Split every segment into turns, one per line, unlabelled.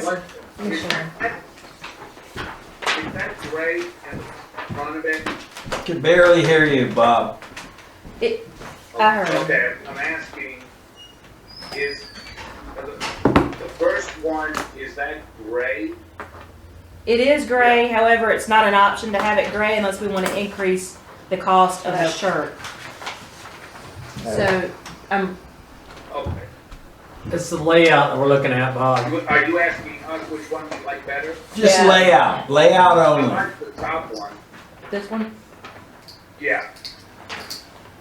board, Commissioner.
Is that gray at the front of it?
Can barely hear you, Bob.
I heard.
Okay, I'm asking, is, the first one, is that gray?
It is gray, however, it's not an option to have it gray unless we want to increase the cost of the shirt. So, um,
Okay.
It's the layout that we're looking at,
Are
Bob.
you- Are you asking us which one we like better?
Just
Yeah.
layout, layout
I
only.
like the top one,
this one,
yeah.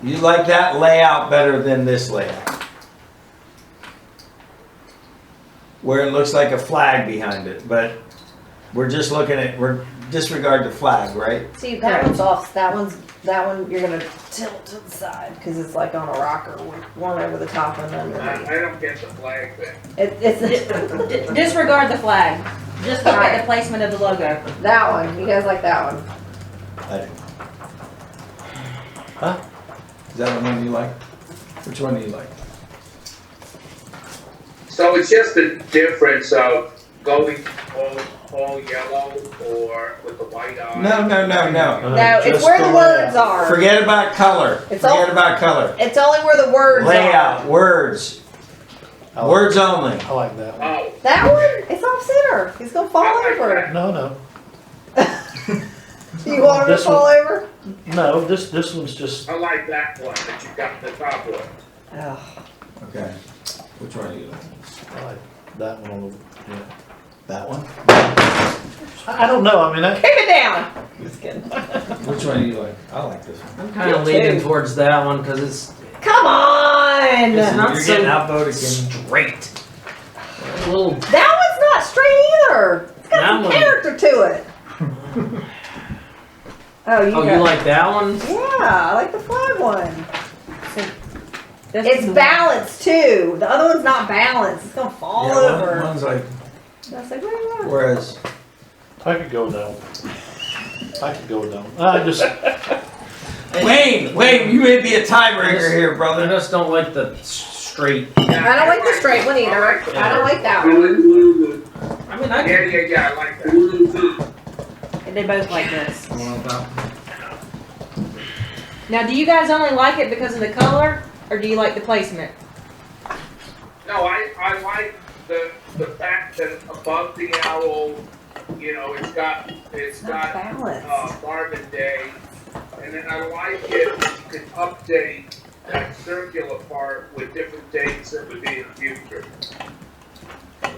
You like that layout better than this layout? Where it looks like a flag behind it, but we're just looking at, we're disregard the flag, right?
See, that one's off. That one's that one. You're gonna tilt to the side because it's like on a rocker, with one over the top and
I,
underneath.
I don't get the flag thing.
It, it's
D- disregard the flag, just look at the placement of the logo.
that one. You guys like that one?
I do. Huh? Is that the one you like? Which one do you like?
So it's just the difference of going all, all yellow or with the white on.
No, no, no,
Uh,
no.
No, it's
Just
where the
layout.
words are.
Forget about color.
It's all-
Forget about color.
It's only where the words
Layout, words,
I like-
words only.
I like that one.
Oh,
are. That one, it's off center. He's gonna fall
I like
over.
that.
No, no,
You want him to
This one.
fall over?
no, this, this one's just,
I like that one that you got the top one.
Oh,
Okay. Which one do you like?
I like that one. a little- yeah.
That one?
I, I don't know, I mean, I,
keep it down. Just kidding.
Which one do you like? I like this one.
I'm kind of leaning towards that one because it's
Come on.
It's not
You're getting
so-
outvoted again.
straight. A little.
That one's not straight either. It's got
That
some
one-
character to it. oh, you
Oh,
got
you like that one?
Yeah, I like the flag one.
This is
It's
the-
balanced too. The other one's not balanced. It's gonna fall
Yeah, one-
over.
One's like,
And I was like, "Where am I?"
whereas,
I could go down. I could go down. I just,
Wayne, Wayne, you may be a tiebreaker here,
I
brother.
just don't like the s- straight.
I don't like the straight one either.
I like the-
I don't like that one.
Blue,
I mean, I
yeah, yeah, yeah, I like that.
They both like this.
I want that one.
Now, do you guys only like it because of the color, or do you like the placement?
No, I, I like the, the fact that above the owl, you know, it's got, it's
It's not
got,
balanced.
uh, Marvin Day. And then I like it, you can update that circular part with different dates that would be in the future.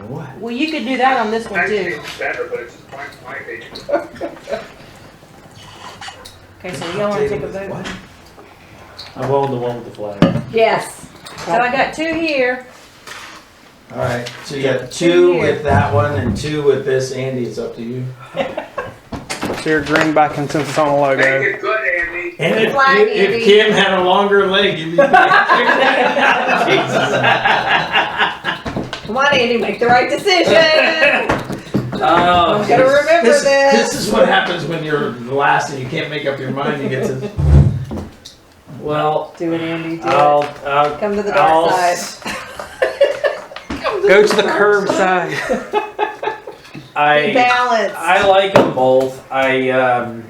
What?
Well, you could do that on this one
Actually,
too.
it's better, but it's just my, my opinion.
Okay, so you don't wanna take a vote?
What?
I'm going the one with the flag.
Yes.
So I got two here,
All right, so you got two
here.
with that one and two with this. Andy, it's up to you.
So you're agreeing by consensus on the logo.
Make it good, Andy.
And
if- Flag, if Andy. Kim
had a longer leg, you'd be.
Come on, Andy, make the right decision.
Oh,
I'm gonna remember
This,
this.
this is what happens when you're the last and you can't make up your mind. You get to.
well,
Do it, Andy. Do
I'll,
it.
I'll
Come to the dark
Oh. I'll
side.
Go to the curb side.
Be
I
balanced.
I like them both. I um,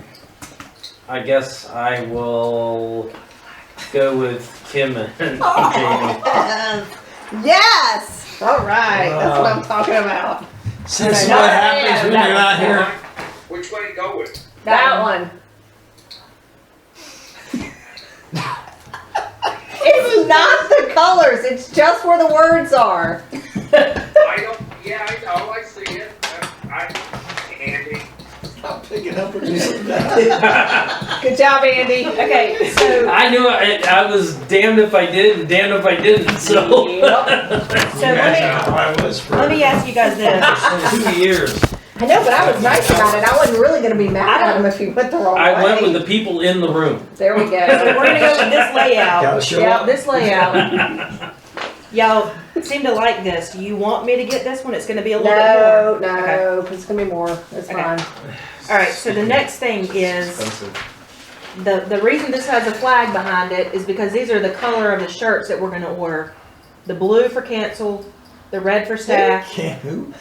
I guess I will go with Kim and Jamie.
Oh. yes. yes. All right. That's what I'm talking about.
This is
No,
what
no, no,
happens when
no,
you're not here.
Which way to go with?
That
one. it's not the colors. It's just where the words are.
I don't, yeah, I know, I see it. I, I- Andy,
Stop picking up what you said.
Good job, Andy.
okay, so,
I knew I, I was damned if I did and damned if I didn't. So
so let me,
I was for
let me ask you guys this.
two years.
I know, but I was nice about it. I wasn't really going to be mad
I
at him if he went the wrong way.
I went with the people in the room.
There we
So we're
go.
gonna go with this layout.
Gotta show
Yeah,
up.
this layout. Y'all seem to like this. Do you want me to get this one? It's gonna be a little bit more.
No, no, because it's going to be more. It's
Okay.
fine.
All right, so the next thing is, the, the reason this has a flag behind it is because these are the color of the shirts that we're gonna order. The blue for cancel, the red for staff,
Can't who?